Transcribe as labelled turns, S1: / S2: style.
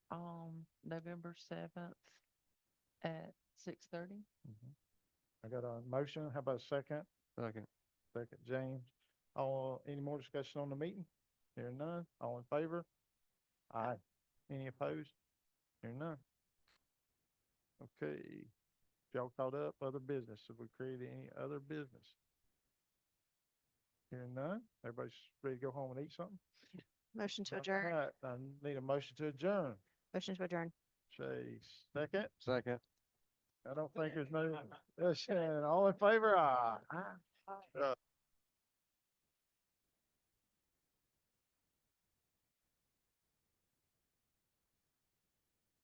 S1: on um, November seventh at six thirty.
S2: Mhm. I got a motion. How about a second?
S3: Second.
S2: Second, James. All, any more discussion on the meeting? Hearing none. All in favor? Aye. Any opposed? Hearing none. Okay. Y'all caught up? Other business? Have we created any other business? Hearing none. Everybody's ready to go home and eat something?
S4: Motion to
S2: All
S4: adjourn,
S2: right, I need a motion to adjourn.
S4: motion to adjourn.
S2: Say second.
S3: Second.
S2: I don't think there's no, uh, Shannon, all in favor? Aye.